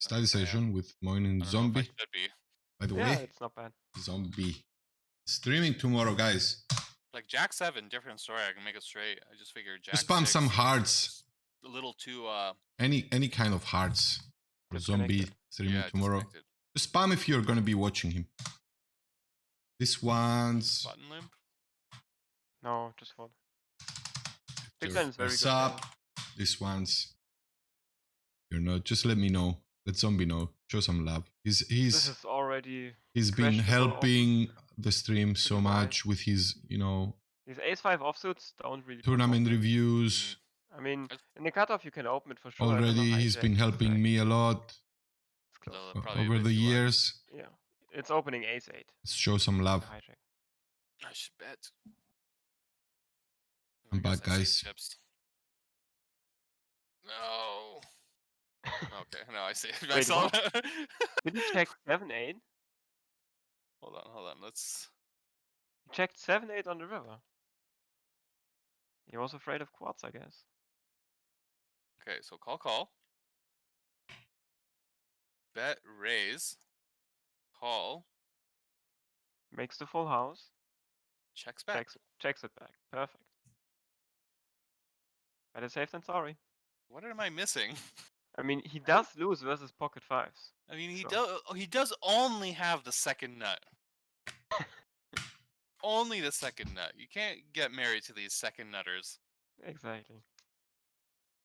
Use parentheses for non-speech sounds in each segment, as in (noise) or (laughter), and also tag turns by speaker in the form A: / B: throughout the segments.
A: study session with Moin
B: I
A: and
C: Uh-huh.
B: don't know if I
A: Zombie.
B: should be.
A: By the
C: Yeah,
A: way,
C: it's not bad.
A: Zombie streaming tomorrow, guys.
B: Like Jack Seven, different story. I can make it straight. I just figured Jack.
A: Just spam
B: six
A: some
B: was
A: hearts.
B: A little too uh.
A: Any any kind of hearts. For Zombie
C: Disconnected.
A: streaming
B: yeah,
A: tomorrow.
B: disconnected.
A: Just spam if you're gonna be watching him. This one's
B: Button limp.
C: No, just hold.
A: There's
C: Declan is very
A: what's
C: good.
A: up? This one's. You're not. Just let me know. Let zombie know. Show some love. He's
C: This
A: he's
C: is already.
A: he's been
C: questionable of-
A: helping the stream so
C: Goodbye.
A: much with his you know
C: These ace five offsuits don't really. perform.
A: tournament reviews.
C: I mean,
B: That's-
C: in the cutoff you can open it for sure. I don't know
A: Already,
C: how
A: he's
C: Jack
A: been
C: is
A: helping
C: like-
A: me a lot
C: It's close.
B: They'll
A: o-
B: probably
A: over
B: raise
A: the
B: you up.
A: years.
C: Yeah, it's opening ace eight.
A: Let's show some love.
C: Hijack.
B: Mm, I should bet. I
A: I'm
B: guess
A: back,
B: I see
A: guys.
B: Chips.
A: (laughs)
B: No. Okay. No, I see. (laughs) I
C: Wait,
B: saw.
C: what? Did he check seven eight?
B: hold on. Hold on. Let's.
C: He checked seven eight on the river. He was afraid of quads, I guess.
B: Okay. So call call. Bet raise. Call
C: Makes the full house.
B: checks back.
C: Checks checks it back. Perfect. Better safe than sorry.
B: What am I missing?
C: I mean, he does lose versus pocket fives.
B: I mean, he
C: Sure.
B: does. He does only have the second nut. only the second nut. You can't get married to these second nutters.
C: Exactly.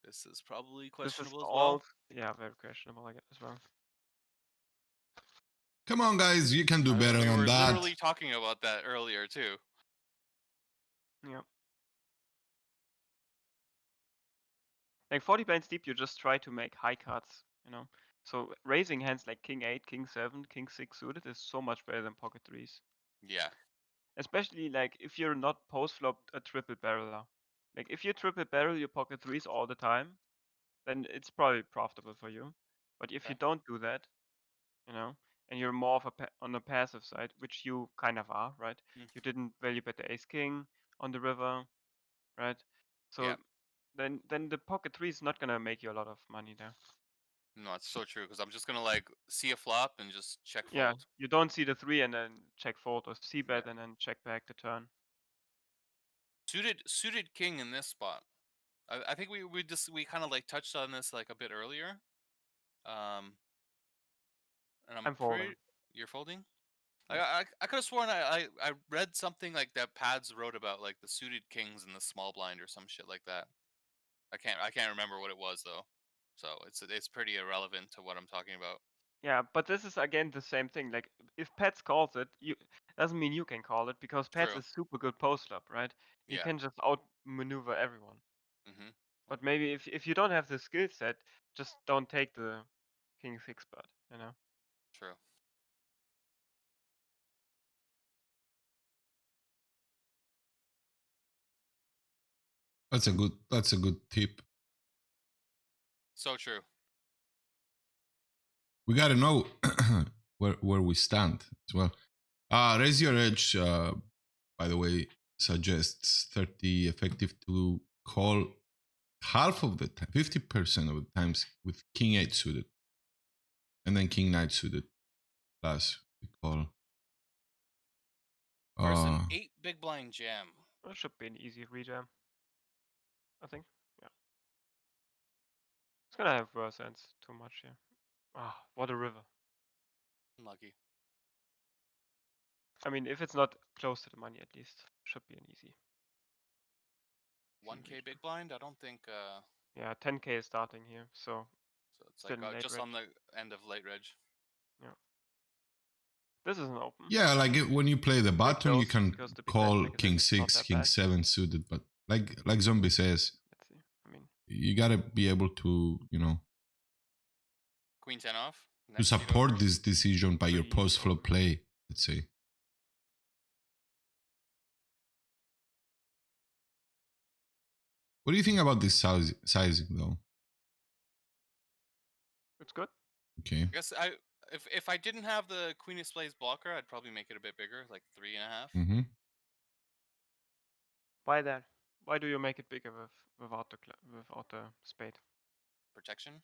B: This is probably
C: This is
B: questionable as well.
C: all. Yeah, very questionable. I guess as well.
A: Come on, guys, you can do
B: I mean,
A: better
B: we
A: on
B: were
A: that.
B: literally talking about that earlier too.
C: Like 40 blinds deep, you just try to make high cards. You know. So raising hands like king eight, king seven, king six suited is so much better than pocket threes.
B: Yeah.
C: Especially like if you're not post flop a triple barreler. Like if you triple barrel your pocket threes all the time, then it's probably profitable for you. But if you
B: Okay.
C: don't do that, you know, and you're more of a pa- on the passive side, which you kind of are, right?
B: Mm.
C: You didn't value bet the ace king on the river, right? So
B: Yeah.
C: then then the pocket three is not gonna make you a lot of money there.
B: No, it's so true because I'm just gonna like see a flop and just check fold.
C: Yeah, you don't see the three and then check fold or see bet and then check back the turn.
B: Suited suited king in this spot. I, I think we we just we kind of like touched on this like a bit earlier. Um. And I'm,
C: I'm folding.
B: pretty- You're folding. Like, I I, I could have sworn I, I I read something like that Pads wrote about like the suited kings and the small blind or some shit like that. I can't I can't remember what it was though. So it's it's pretty irrelevant to what I'm talking about.
C: Yeah, but this is again the same thing. Like if Pets calls it, you doesn't mean you can call it because Pets
B: True.
C: is super good post up, right? You
B: Yeah.
C: can just outmaneuver everyone.
B: hmm
C: But maybe if if you don't have the skill set, just don't take the King Six Bird, you know?
B: True.
A: That's a good. That's a good tip.
B: So true.
A: we gotta know (clears throat) where where we stand as well. Uh, raise your edge. Uh, by the way, suggests thirty effective to call half of the time, fifty percent of the times with king eight suited, and then king nine suited. Plus we call.
B: First
A: Uh,
B: an eight big blind jam.
C: It should be an easy rejam. I think. Yeah. It's gonna have worse ends too much here. Ah, what a river.
B: Unlucky.
C: I mean if it's not close to the money at least. Should be an easy.
B: One K big blind. I don't think. Uh,
C: Yeah, ten K is starting here, so
B: so it's like
C: Still
B: uh,
C: late
B: just
C: reg.
B: on the end of late reg.
C: this is an open.
A: yeah, like it- when you play the bottom, you
C: those,
A: can
C: because the big blind
A: call
C: figures are
A: king
C: just not
A: six,
C: that
A: king
C: bad.
A: seven suited, but like like zombie says,
C: Let's see. I mean
A: you gotta be able to you know
B: Queen ten off.
A: to
B: next seat
A: support
B: over.
A: this decision by your
C: Pretty
A: post flop play, let's say. What do you think about this size, sizing though?
C: it's good.
A: Okay.
B: I guess I if if I didn't have the Queen of Spades blocker, I'd probably make it a bit bigger, like three and a half.
A: Mm-hmm.
C: Why that? Why do you make it bigger with without the cla without the spade?
B: Protection.